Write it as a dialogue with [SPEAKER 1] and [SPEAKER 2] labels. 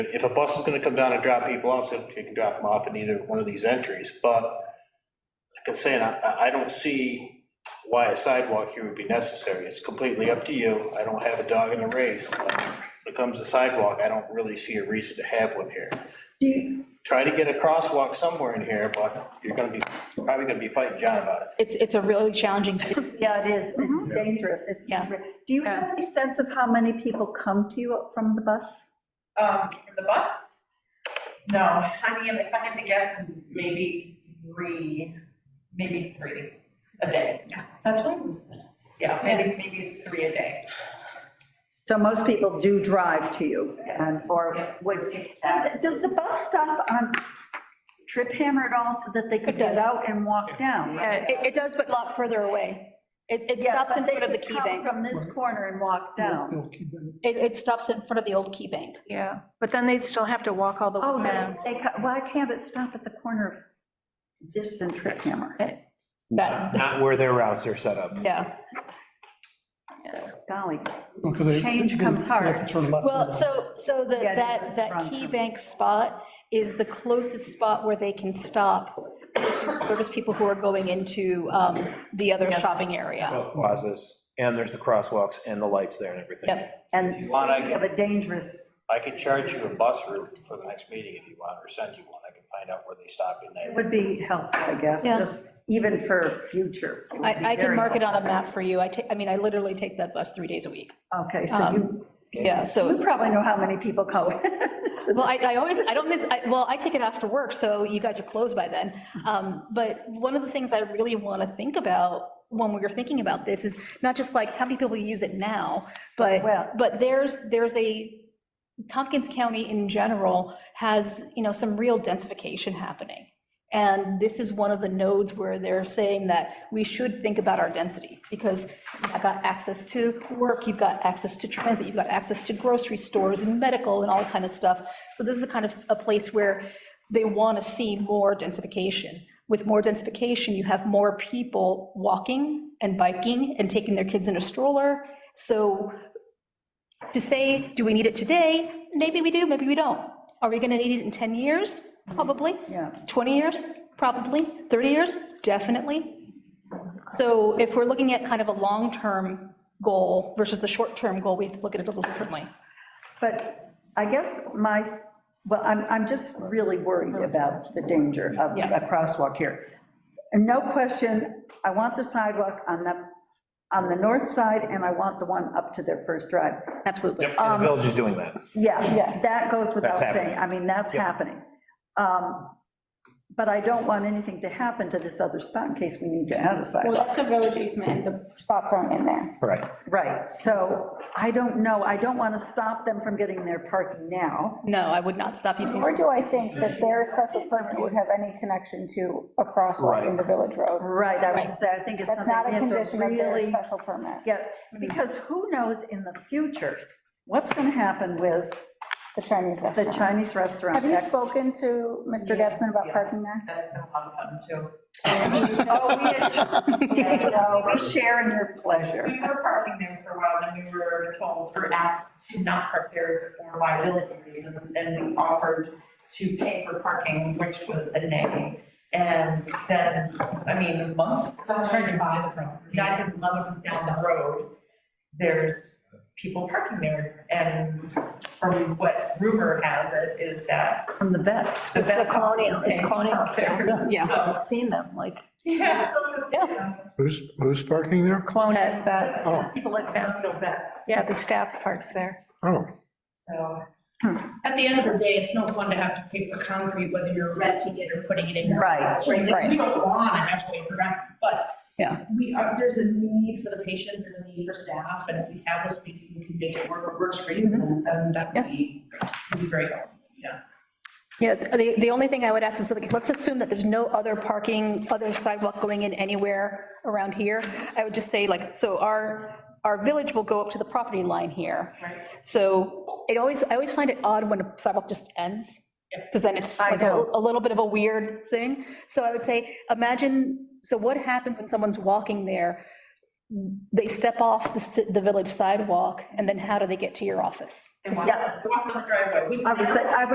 [SPEAKER 1] If a bus is gonna come down and drop people off, then you can drop them off in either one of these entries, but like I'm saying, I- I, I don't see why a sidewalk here would be necessary. It's completely up to you. I don't have a dog in the race. but When it comes to sidewalk, I don't really see a reason to have one here.
[SPEAKER 2] Do you,
[SPEAKER 1] Try to get a crosswalk somewhere in here, but you're gonna be, probably gonna be fighting John about it.
[SPEAKER 3] It's, it's a really challenging, it's-
[SPEAKER 2] yeah, it is, it's dangerous, it's,
[SPEAKER 3] Yeah.
[SPEAKER 2] do you have any sense of how many people come to you from the bus?
[SPEAKER 4] Um, from the bus? No, I mean, if I had to guess, maybe three, maybe three a day.
[SPEAKER 5] That's what I was thinking.
[SPEAKER 4] Yeah, maybe, maybe three a day.
[SPEAKER 2] So most people do drive to you, and,
[SPEAKER 4] Yes.
[SPEAKER 2] or would, does, does the bus stop on Trip Hammer at all, so that they could
[SPEAKER 3] It
[SPEAKER 2] get
[SPEAKER 3] does.
[SPEAKER 2] out and walk down?
[SPEAKER 3] it, it does, but a lot further away. It, it
[SPEAKER 2] Yeah,
[SPEAKER 3] stops in
[SPEAKER 2] but they
[SPEAKER 3] front of the
[SPEAKER 2] could
[SPEAKER 3] key
[SPEAKER 2] come
[SPEAKER 3] bank.
[SPEAKER 2] From this corner and walk down.
[SPEAKER 6] Bill Keegan.
[SPEAKER 3] It, it stops in front of the old key bank.
[SPEAKER 7] Yeah, but then they'd still have to walk all the way
[SPEAKER 2] Oh,
[SPEAKER 7] down.
[SPEAKER 2] they, they, ca- why can't it stop at the corner of this and Trip Hammer?
[SPEAKER 3] That,
[SPEAKER 8] Not where their routes are set up.
[SPEAKER 3] yeah.
[SPEAKER 2] Golly,
[SPEAKER 6] No, 'cause they-
[SPEAKER 2] Change
[SPEAKER 6] they-
[SPEAKER 2] comes
[SPEAKER 6] they have to
[SPEAKER 2] hard.
[SPEAKER 6] turn left
[SPEAKER 3] Well,
[SPEAKER 6] on
[SPEAKER 3] so, so the-
[SPEAKER 2] Yeah,
[SPEAKER 3] that,
[SPEAKER 2] it's
[SPEAKER 3] that
[SPEAKER 2] wrong.
[SPEAKER 3] key bank spot is the closest spot where they can stop service people who are going into um, the other shopping area.
[SPEAKER 8] Both plazas, and there's the crosswalks and the lights there and everything.
[SPEAKER 3] Yep.
[SPEAKER 2] and
[SPEAKER 1] you want, I
[SPEAKER 2] speaking of a dangerous,
[SPEAKER 1] I can charge you a bus route for the next meeting if you want, or send you one. I can find out where they stop in
[SPEAKER 2] it
[SPEAKER 1] there.
[SPEAKER 2] would be helpful, I guess,
[SPEAKER 3] Yeah.
[SPEAKER 2] just even for future. It would be
[SPEAKER 3] I, I can
[SPEAKER 2] very
[SPEAKER 3] mark it on a map for you. I take, I mean, I literally take that bus three days a week.
[SPEAKER 2] helpful. Okay, so you,
[SPEAKER 3] Yeah, um, uh, so.
[SPEAKER 2] you probably know how many people go.
[SPEAKER 3] Well, I, I always, I don't miss, I- well, I take it after work, so you guys are closed by then. Um, But one of the things I really want to think about when we were thinking about this is not just like, how many people use it now? But,
[SPEAKER 2] Well-
[SPEAKER 3] but there's, there's a, Tompkins County in general has, you know, some real densification happening. And this is one of the nodes where they're saying that we should think about our density, because I've got access to work, you've got access to transit, you've got access to grocery stores and medical and all kind of stuff. So this is the kind of a place where they want to see more densification. With more densification, you have more people walking and biking and taking their kids in a stroller. So to say, do we need it today? Maybe we do, maybe we don't. Are we going to need it in 10 years? Probably.
[SPEAKER 2] Yeah.
[SPEAKER 3] 20 years? Probably. 30 years? Definitely. So if we're looking at kind of a long-term goal versus the short-term goal, we have to look at it a little differently.
[SPEAKER 2] But I guess my, well, I'm, I'm just really worried about the danger of
[SPEAKER 3] Yeah.
[SPEAKER 2] a crosswalk here. And no question, I want the sidewalk on the, on the north side, and I want the one up to their first drive.
[SPEAKER 3] Absolutely.
[SPEAKER 8] Yep, and the village is doing that.
[SPEAKER 2] Yeah, that goes without
[SPEAKER 8] That's
[SPEAKER 2] saying,
[SPEAKER 8] happening.
[SPEAKER 2] I mean, that's happening. Um, But I don't want anything to happen to this other spot in case we need to add a
[SPEAKER 5] Well,
[SPEAKER 2] sidewalk.
[SPEAKER 5] that's a village easement, and the spots aren't in there.
[SPEAKER 8] Right.
[SPEAKER 2] Right, so I don't know, I don't want to stop them from getting their parking now.
[SPEAKER 3] No, I would not stop you.
[SPEAKER 5] Nor do I think that their special permit would have any connection to a crosswalk in the village road.
[SPEAKER 2] Right, I was gonna say, I think it's
[SPEAKER 5] That's
[SPEAKER 2] something
[SPEAKER 5] not a
[SPEAKER 2] we have to
[SPEAKER 5] condition of their
[SPEAKER 2] really
[SPEAKER 5] special permit.
[SPEAKER 2] get, because who knows in the future what's going to happen with
[SPEAKER 5] The Chinese
[SPEAKER 2] the
[SPEAKER 5] restaurant.
[SPEAKER 2] Chinese restaurant.
[SPEAKER 5] Have you
[SPEAKER 2] next-
[SPEAKER 5] spoken to Mr. Gessman about
[SPEAKER 4] Yeah.
[SPEAKER 5] parking there?
[SPEAKER 4] That's been a lot of fun too.
[SPEAKER 2] Oh, we- yeah, no, We're sharing your pleasure.
[SPEAKER 4] We were parking there for a while, then we were told or asked to not park there for liability reasons, and we offered to pay for parking, which was a nay. And then, I mean, months, I was trying to buy the property, I think months down the road, there's people parking there, and from what rumor has it is that.
[SPEAKER 2] From the vets.
[SPEAKER 4] the vets
[SPEAKER 3] colonial- it's
[SPEAKER 4] pay
[SPEAKER 3] colonial,
[SPEAKER 4] park there.
[SPEAKER 3] Yeah,
[SPEAKER 4] So,
[SPEAKER 3] I've seen them, like.
[SPEAKER 4] Yeah, so this, um,
[SPEAKER 3] Yeah.
[SPEAKER 4] you know,
[SPEAKER 9] Who's, who's parking there?
[SPEAKER 2] Clone
[SPEAKER 7] That- that-
[SPEAKER 2] People like Brownfield vet.
[SPEAKER 7] Yeah, the staff parks there.
[SPEAKER 9] Oh.
[SPEAKER 4] so,
[SPEAKER 2] Hmm.
[SPEAKER 10] At the end of the day, it's no fun to have to pay for concrete, whether you're renting it or putting it in your
[SPEAKER 2] Right.
[SPEAKER 10] house, right? Like,
[SPEAKER 5] Right.
[SPEAKER 10] We don't want to have to wait for rent, but
[SPEAKER 3] Yeah.
[SPEAKER 10] we are, there's a need for the patients, there's a need for staff, and if we have the space, we can make it work, what works for you,
[SPEAKER 2] Mm-hmm.
[SPEAKER 10] then then that would be, would be great, yeah.
[SPEAKER 3] Yeah, the, the only thing I would ask is, like, let's assume that there's no other parking, other sidewalk going in anywhere around here. I would just say, like, so our, our village will go up to the property line here.
[SPEAKER 4] Right.
[SPEAKER 3] So it always, I always find it odd when a sidewalk just ends, because then it's
[SPEAKER 2] I
[SPEAKER 3] like a
[SPEAKER 2] know.
[SPEAKER 3] a little bit of a weird thing. So I would say, imagine, so what happens when someone's walking there? they step off the, ci- the village sidewalk, and then how do they get to your office?
[SPEAKER 4] They walk,
[SPEAKER 2] Yeah.
[SPEAKER 4] walk on the driveway. We-
[SPEAKER 2] I would say, I would